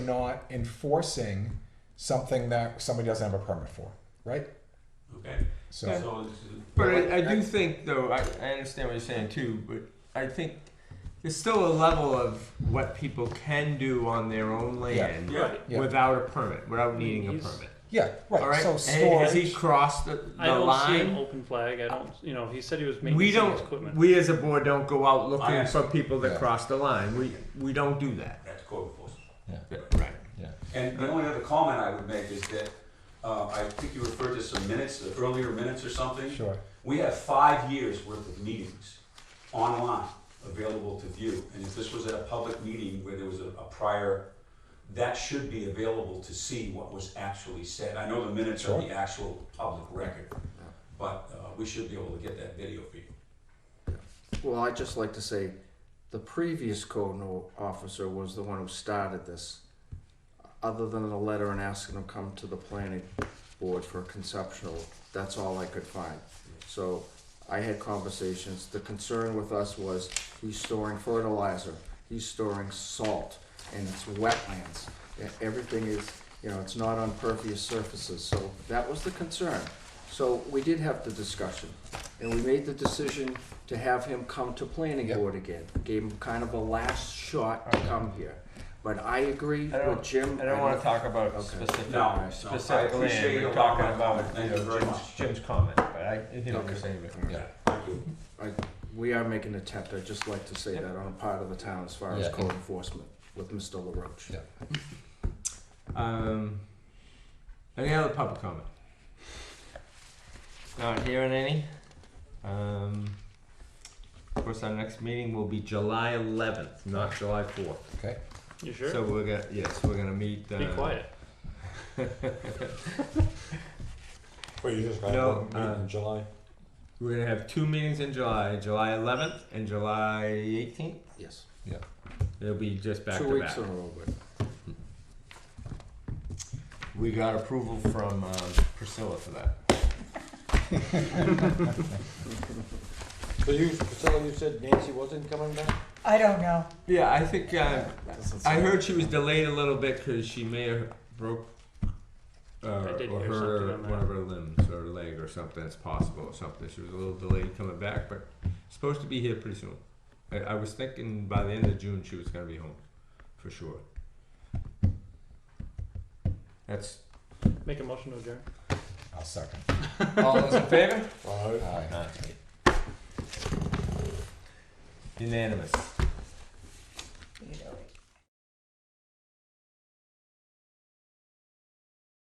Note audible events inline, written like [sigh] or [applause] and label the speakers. Speaker 1: not enforcing something that somebody doesn't have a permit for, right?
Speaker 2: Okay,
Speaker 1: So,
Speaker 2: so it's-
Speaker 3: But I, I do think, though, I, I understand what you're saying too, but I think there's still a level of what people can do on their own land
Speaker 2: yeah,
Speaker 1: Yeah.
Speaker 3: without a permit, without needing a
Speaker 4: He's-
Speaker 3: permit.
Speaker 1: yeah, right.
Speaker 3: All right.
Speaker 1: So
Speaker 3: And has he
Speaker 1: storage,
Speaker 3: crossed the,
Speaker 4: I
Speaker 3: the
Speaker 4: don't see an
Speaker 3: line?
Speaker 4: open flag. I don't. You know, he said he was making
Speaker 3: We
Speaker 4: some of his
Speaker 3: don't.
Speaker 4: equipment.
Speaker 3: We as a board don't go out looking
Speaker 2: I-
Speaker 3: for people that
Speaker 1: Yeah.
Speaker 3: cross the line. We we don't do that.
Speaker 2: that's code enforcement.
Speaker 3: Right.
Speaker 2: And the only other comment I would make is that, uh, I think you referred to some minutes, the earlier minutes or something.
Speaker 1: sure.
Speaker 2: We have five years worth of meetings online available to view. And if this was at a public meeting where there was a, a prior, that should be available to see what was actually said. I know the minutes are the actual public record, but, uh, we should be able to get that video for you.
Speaker 5: Well, I'd just like to say, the previous code no- officer was the one who started this. Other than the letter and asking him to come to the planning board for a conceptual, that's all I could find. So I had conversations, the concern with us was, he's storing fertilizer, he's storing salt, and it's wetlands. E- Everything is, you know, it's not on pervious surfaces, so that was the concern. So we did have the discussion, and we made the decision to have him come to planning
Speaker 1: Yep.
Speaker 5: board again. Gave him kind of a last shot to come here. But I agree
Speaker 3: I don't-
Speaker 5: with Jim.
Speaker 3: I don't want to talk about
Speaker 5: Okay.
Speaker 3: specific
Speaker 2: No, no, I
Speaker 3: specific
Speaker 2: appreciate
Speaker 3: land.
Speaker 2: your
Speaker 3: We're talking
Speaker 2: comment.
Speaker 3: about you
Speaker 2: Thank you
Speaker 3: know,
Speaker 2: very
Speaker 3: Jim's,
Speaker 2: much.
Speaker 3: Jim's comment, but I I hear what you're
Speaker 5: Okay.
Speaker 3: saying.
Speaker 1: Yeah.
Speaker 2: Thank you.
Speaker 5: We are making an attempt, I'd just like to say that on a part of the town as far as
Speaker 1: Yeah.
Speaker 5: code enforcement with Mr. LaRoche.
Speaker 1: Yeah.
Speaker 3: Um, any other public comment? Not hearing any. Um, of course, our next meeting will be July 11th, not July 4th.
Speaker 1: Okay.
Speaker 4: You sure?
Speaker 3: So we're gonna yes, we're gonna meet. Uh, [laughs]
Speaker 4: Be quiet.
Speaker 6: Wait, you just got
Speaker 3: No,
Speaker 6: one meeting
Speaker 3: uh,
Speaker 6: in July?
Speaker 3: We're gonna have two meetings in July, July 11th and July 18th.
Speaker 5: Yes,
Speaker 3: It'll be just back
Speaker 5: two
Speaker 3: to
Speaker 5: weeks
Speaker 3: back.
Speaker 5: in a row, but
Speaker 3: We got approval from um, Priscilla for that.
Speaker 6: [laughs] So you, Priscilla, you said Nancy wasn't coming back?
Speaker 7: I don't know.
Speaker 3: Yeah, I think uh,
Speaker 5: Doesn't
Speaker 3: I
Speaker 5: sound-
Speaker 3: heard she was delayed a little bit because she may have broke uh,
Speaker 4: I did
Speaker 3: or
Speaker 4: hear
Speaker 3: her
Speaker 4: something on
Speaker 3: one of
Speaker 4: that.
Speaker 3: her limbs or leg or something. It's possible or something. She was a little delayed coming back, but supposed to be here pretty soon. I, I was thinking by the end of June she was gonna be home, for sure. That's
Speaker 4: Make a motion to adjourn.
Speaker 1: I'll second.
Speaker 3: all those in favor?
Speaker 6: Well, I-
Speaker 1: Aye.
Speaker 3: Unanimous.